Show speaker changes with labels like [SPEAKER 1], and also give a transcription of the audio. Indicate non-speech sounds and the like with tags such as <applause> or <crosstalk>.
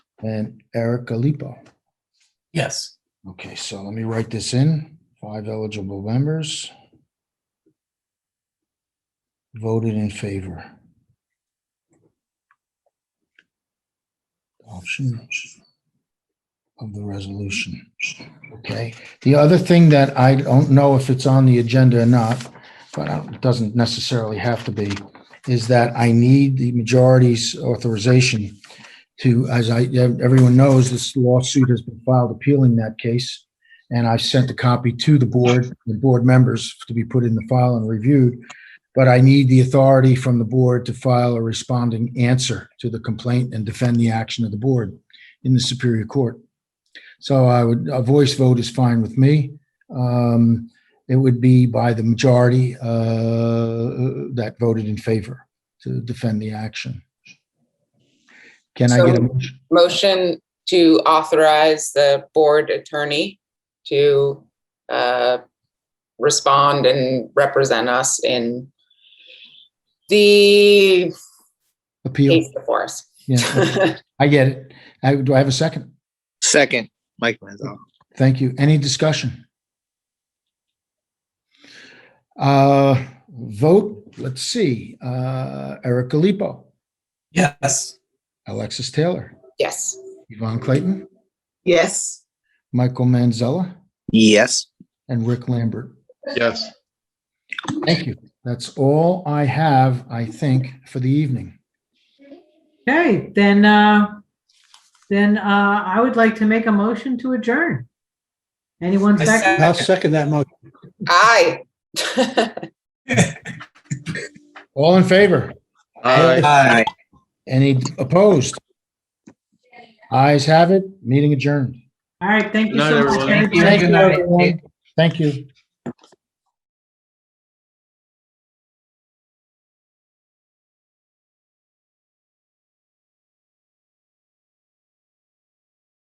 [SPEAKER 1] and Eric Alipo.
[SPEAKER 2] Yes.
[SPEAKER 1] Okay, so let me write this in. Five eligible members. Voted in favor. Options of the resolution. Okay, the other thing that I don't know if it's on the agenda or not, but it doesn't necessarily have to be, is that I need the majority's authorization to, as I, everyone knows, this lawsuit has been filed appealing that case. And I sent a copy to the board, the board members to be put in the file and reviewed. But I need the authority from the board to file a responding answer to the complaint and defend the action of the board in the Superior Court. So I would, a voice vote is fine with me. Um, It would be by the majority uh, that voted in favor to defend the action. Can I get a
[SPEAKER 3] So-
[SPEAKER 1] motion?
[SPEAKER 3] Motion to authorize the board attorney to uh, respond and represent us in the
[SPEAKER 1] Appeal,
[SPEAKER 3] case before us.
[SPEAKER 1] yeah, I get it. I, do I have a second?
[SPEAKER 4] Second, Mike Manzella.
[SPEAKER 1] Thank you. Any discussion? Uh, vote, let's see, uh, Eric Gallipo,
[SPEAKER 2] Yes.
[SPEAKER 1] Alexis Taylor,
[SPEAKER 3] <laughs> Yes,
[SPEAKER 1] Yvonne Clayton,
[SPEAKER 5] yes,
[SPEAKER 1] Michael Manzella,
[SPEAKER 4] Yes.
[SPEAKER 1] and Rick Lambert.
[SPEAKER 6] yes,
[SPEAKER 1] Thank you. That's all I have, I think, for the evening.
[SPEAKER 7] Okay, then, uh, then, uh, I would like to make a motion to adjourn. Anyone
[SPEAKER 2] I
[SPEAKER 7] second?
[SPEAKER 2] second.
[SPEAKER 3] aye. <laughs>
[SPEAKER 1] All in favor?
[SPEAKER 6] aye,
[SPEAKER 2] Aye.
[SPEAKER 1] Any opposed? Eyes have it, meeting adjourned.
[SPEAKER 7] All right, thank you
[SPEAKER 6] Good night,
[SPEAKER 7] so much.
[SPEAKER 6] everyone.
[SPEAKER 7] Thank you.
[SPEAKER 1] Thank you, everyone. Thank you.